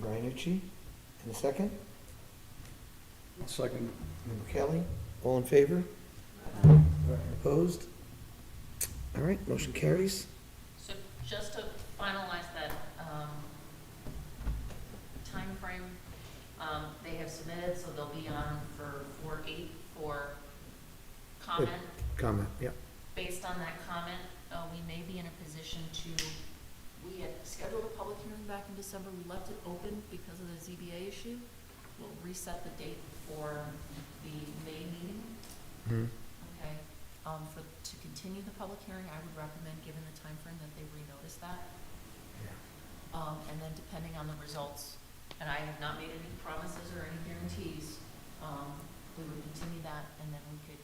Brianucci, and a second, Second. member Kelly, all in favor? Opposed? All right, motion carries. So just to finalize that um, timeframe, um, they have submitted, so they'll be on for four eight for comment. Comment, yeah. Based on that comment, uh, we may be in a position to, we had scheduled a public hearing back in December. We left it open because of the ZBA issue. We'll reset the date for the May meeting. Mm-hmm. Okay, um, for, to continue the public hearing, I would recommend, given the time frame that they renotice that. Um, and then depending on the results, and I have not made any promises or any guarantees, um, we would continue that and then we could,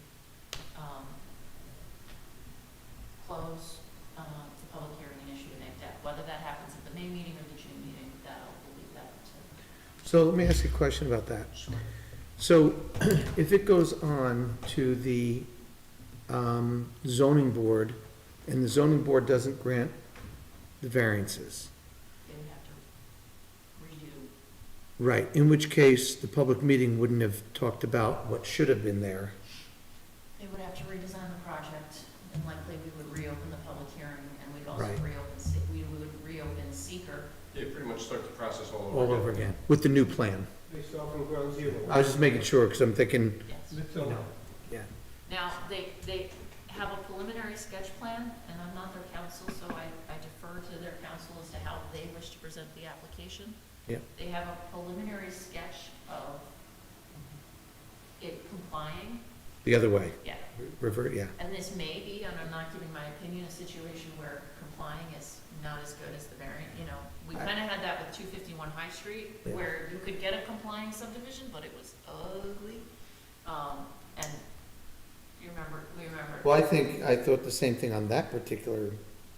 um, close, uh, the public hearing and issue an act. Whether that happens at the May meeting or the June meeting, that'll, we'll leave that to. So let me ask you a question about that. Sure. So if it goes on to the um, zoning board, and the zoning board doesn't grant the variances, They would have to redo. right, in which case the public meeting wouldn't have talked about what should have been there. They would have to redesign the project, and likely we would reopen the public hearing, and we'd also Right. reopen, Se- we would reopen seeker. Yeah, pretty much start the process all over. all over again with the new plan. Based off of ground zero. I was just making sure, because I'm thinking, yes. It's on. yeah, Now, they, they have a preliminary sketch plan, and I'm not their counsel, so I I defer to their counsel as to how they wish to present the application. yeah, They have a preliminary sketch of it complying, the other way, yeah. revert, yeah. And this may be, and I'm not giving my opinion, a situation where complying is not as good as the variant, you know. We I- kind of had that with two fifty-one High Street, Yeah. where you could get a complying subdivision, but it was ugly. Um, and you remember, we remember. Well, I think, I thought the same thing on that particular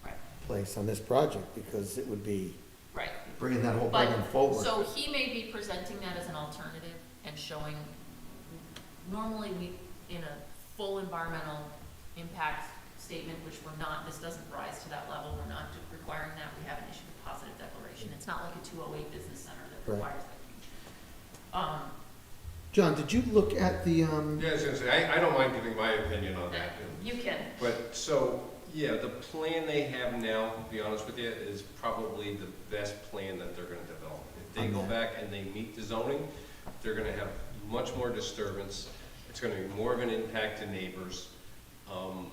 Right, place, on this project, because it would be right. bringing that whole But, plan forward. so he may be presenting that as an alternative and showing, normally we, in a full environmental impact statement, which we're not, this doesn't rise to that level, we're not requiring that, we haven't issued a positive declaration. It's not like a two oh eight business center that Right. requires that huge. Um, John, did you look at the, um, Yeah, I was gonna say, I, I don't mind giving my opinion on that. you can, But, so, yeah, the plan they have now, to be honest with you, is probably the best plan that they're gonna develop. If they go Okay. back and they meet the zoning, they're gonna have much more disturbance. It's gonna be more of an impact to neighbors. Um,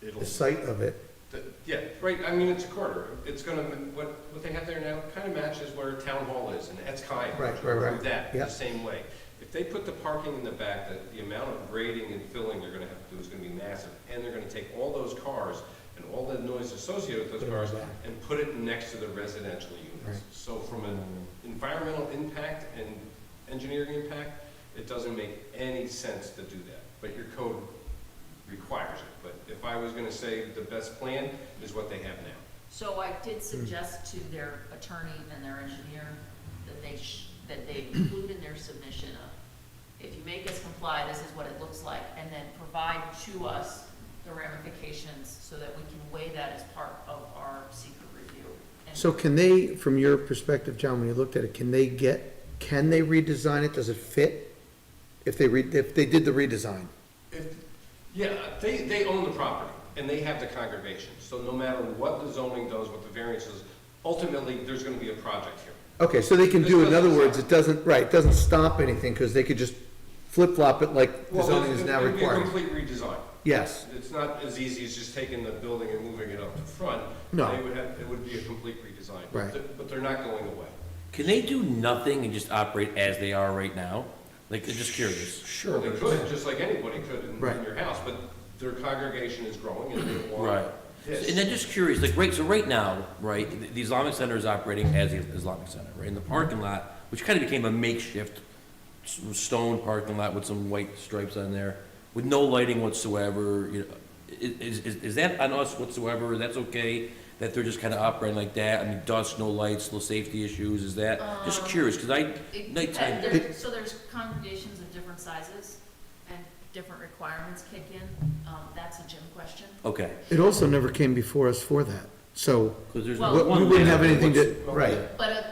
It'll, the site of it? the- yeah, right, I mean, it's a quarter. It's gonna, what, what they have there now kind of matches where Town Hall is and Etkai. Right, right, right. do that Yeah. the same way. If they put the parking in the back, the, the amount of grading and filling they're gonna have to do is gonna be massive. And they're gonna take all those cars and all the noise associated Put with those it in the cars back. and put it next to the residential Right. units. So from an environmental impact and engineering impact, it doesn't make any sense to do that. But your code requires it. But if I was gonna say the best plan is what they have now. So I did suggest to their attorney and their engineer that they, sh- that they include in their submission of, if you make us comply, this is what it looks like, and then provide to us the ramifications so that we can weigh that as part of our secret review. And So can they, from your perspective, John, when you looked at it, can they get, can they redesign it? Does it fit? If they re, if they did the redesign? If, yeah, they, they own the property and they have the congregation. So no matter what the zoning does, what the variances, ultimately, there's gonna be a project here. Okay, so they can This do, in doesn't other words, it doesn't, right, it doesn't stop anything, because they could just flip-flop it like the Well, zoning it's- is now it'd be required. a complete redesign. Yes, It's not as easy as just taking the building and moving it up to front. No. They would have, it would be a complete redesign. But Right. they're- But they're not going away. Can they do nothing and just operate as they are right now? Like, I'm just curious. sure. They could, just like anybody could in, Right. in your house, but their congregation is growing and they Right. want this. And then just curious, like, right, so right now, right, the- the Islamic Center is operating as the Islamic Center, right? In the parking lot, which kind of became a makeshift s- stone parking lot with some white stripes on there, with no lighting whatsoever, you know, i- is, is, is that on us whatsoever? That's okay? That they're just kind of operating like that? I mean, dust, no lights, no safety issues, is that? Just Um, curious, because I, it- nighttime. and there- So there's congregations of different sizes and different requirements kick in, um, that's a Jim question. okay, It also never came before us for that, so because there's Well- what- we one wouldn't there. have anything to, What's- right. But uh, a